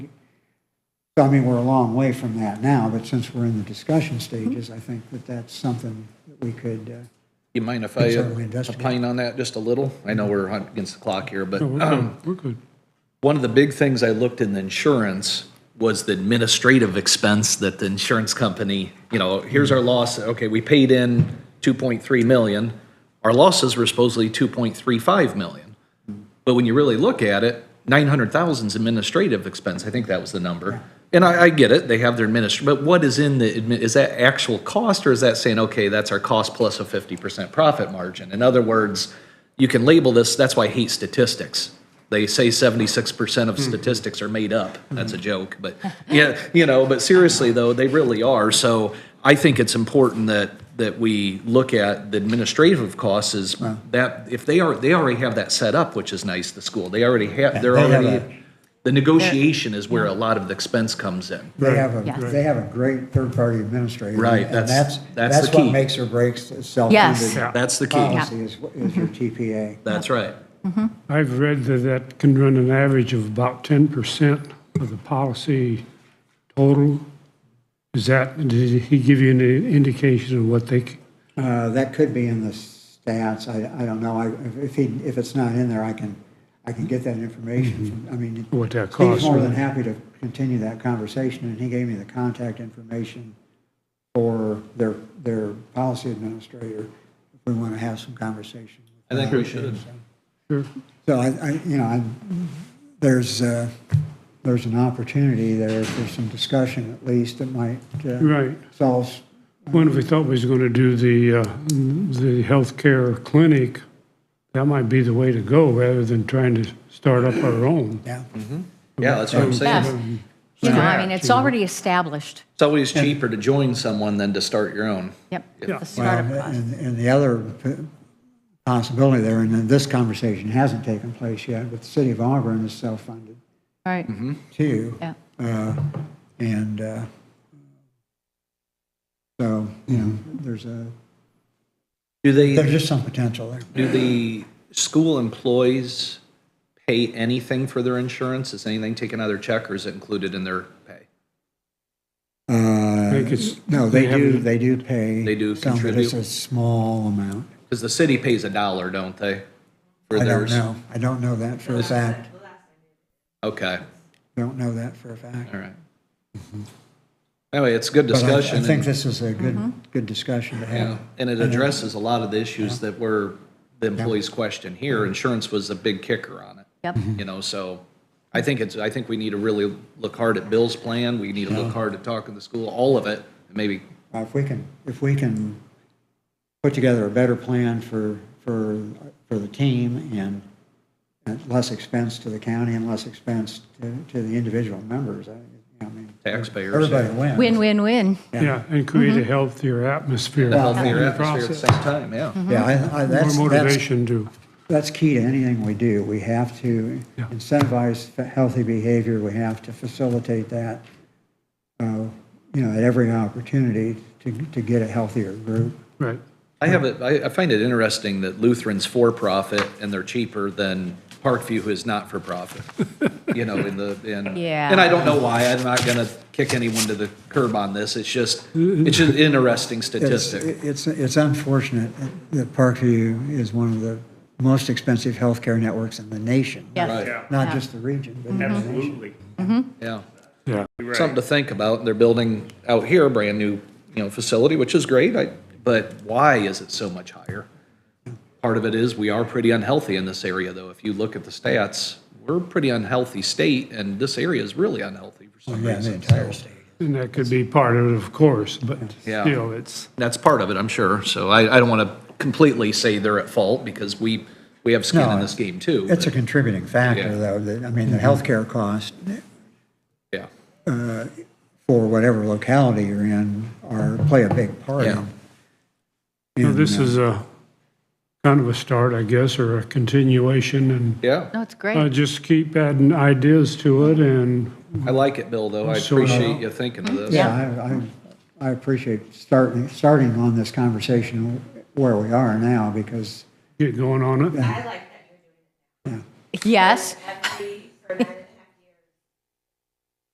So I mean, we're a long way from that now, but since we're in the discussion stages, I think that that's something that we could, uh, You mind if Can I uh, certainly investigate. opine on that just a little? I know we're on- against the clock here, but We're good. We're good. one of the big things I looked in the insurance was the administrative expense that the insurance company, you know, here's our loss, okay, we paid in 2.3 million. Our losses were supposedly 2.35 million. But when you really look at it, 900,000 is administrative expense, I think that was the number. And I, I get it, they have their administr, but what is in the, admi- is that actual cost, or is that saying, okay, that's our cost plus a 50% profit margin? In other words, you can label this, that's why I hate statistics. They say 76% of statistics are made up, that's a joke, but, yeah, you know, but seriously though, they really are. So I think it's important that, that we look at the administrative costs is that, if they are, they already have that set up, which is nice, the school, they already have, they're they have already, the negotiation is where a lot of the expense comes in. they have Yes. a, they have a great third-party administrator. Right, and that's- that's the That's what key. makes or breaks a Yes. self-funded Yeah. That's the key, policy is, is your TPA. that's right. I've read that that can run an average of about 10% of the policy total. Is that, did he give you any indication of what they, c- Uh, That could be in the stats, I, I don't know, I- if- if he, if it's not in there, I can, I can get that information. from- I mean, Mm-hmm. What that Steve's costs, more than right. happy to continue that conversation, and he gave me the contact information for their, their policy administrator, if we want to have some conversation. I think we should. Sure. So I, I, you know, I, there's, uh, there's an opportunity there for some discussion at least that might uh, Right. solve, When if we thought we was going to do the, uh, the healthcare clinic, that might be the way to go rather than trying to start up our own. yeah. Yeah, that's what I'm Yes. saying. You know, I mean, it's already established. It's always cheaper to join someone than to start your own. Yep. Yeah. The startup Well, cost. and, and the other p- possibility there, and then this conversation hasn't taken place yet, but the city of Auburn is self-funded All right. Mm-hmm. too. Yeah. Uh, And, uh, so, you know, there's a, Do they? there's just some potential there. Do the school employees pay anything for their insurance? Is anything taken out of their check or is it included in their pay? Uh, think it's- No, they they have do, it- they do pay. They do some, but It's contribute? a small amount. Because the city pays a dollar, don't they? for I don't theirs? know. I don't know that for a fact. Okay, Don't know that for a fact. all right. Anyway, it's a good But I- discussion. I think and- this is a good, good discussion to Yeah, have. and it addresses a lot of the issues that were the employees' question Mm-hmm. here. Insurance was a big kicker on it. Yep. You know, so I think it's, I think we need to really look hard at Bill's plan. We need to look hard at talking to school, all of it, maybe Uh, If we can, if we can put together a better plan for, for, for the team and at less expense to the county and less expense to, to the individual members, I, I mean. Taxpayers. Everybody wins. Win, win, win. Yeah, and create a healthier atmosphere. the healthier in atmosphere the at the process. same time, yeah. Yeah, I, I, that's, More that's motivation to, That's key to anything we do. We have to Yeah. incentivize f- healthy behavior. We have to facilitate that, uh, you know, at every opportunity to, to get a healthier group. right. I have it, I, I find it interesting that Lutheran's for-profit and they're cheaper than Parkview, who is not for-profit. You know, in the, in. Yeah. And I don't know why, I'm not gonna kick anyone to the curb on this, it's just, it's an interesting It's, statistic. it's, it's unfortunate that Parkview is one of the most expensive healthcare networks in the nation. Yes. Right, Not just the region, but in the nation. Absolutely. yeah. Yeah. Something to think about, they're building out here a brand-new, you know, facility, which is great, I, but why is it so much higher? Part of it is, we are pretty unhealthy in this area, though, if you look at the stats, we're a pretty unhealthy state, and this area is really unhealthy for some Yeah, the reason, entire so. state. And that could be part of it, of course, but Yeah. still, it's, That's part of it, I'm sure. So I, I don't want to completely say they're at fault because we, we have skin in No, this game too. It's a but, contributing factor, Yeah. Mm-hmm. though, that, I mean, the healthcare cost Yeah, for whatever locality you're in are, play a big part in. Yeah. you know, in, this uh, is a kind of a start, I guess, or a continuation, and yeah. No, it's uh, great. just keep adding ideas to it, and I like it, Bill, though. I Sort of. appreciate you thinking of this. Yeah, I, I, I appreciate starting, starting on this conversation where we are now, because get going on it. I like that you're doing Yes. every, for nine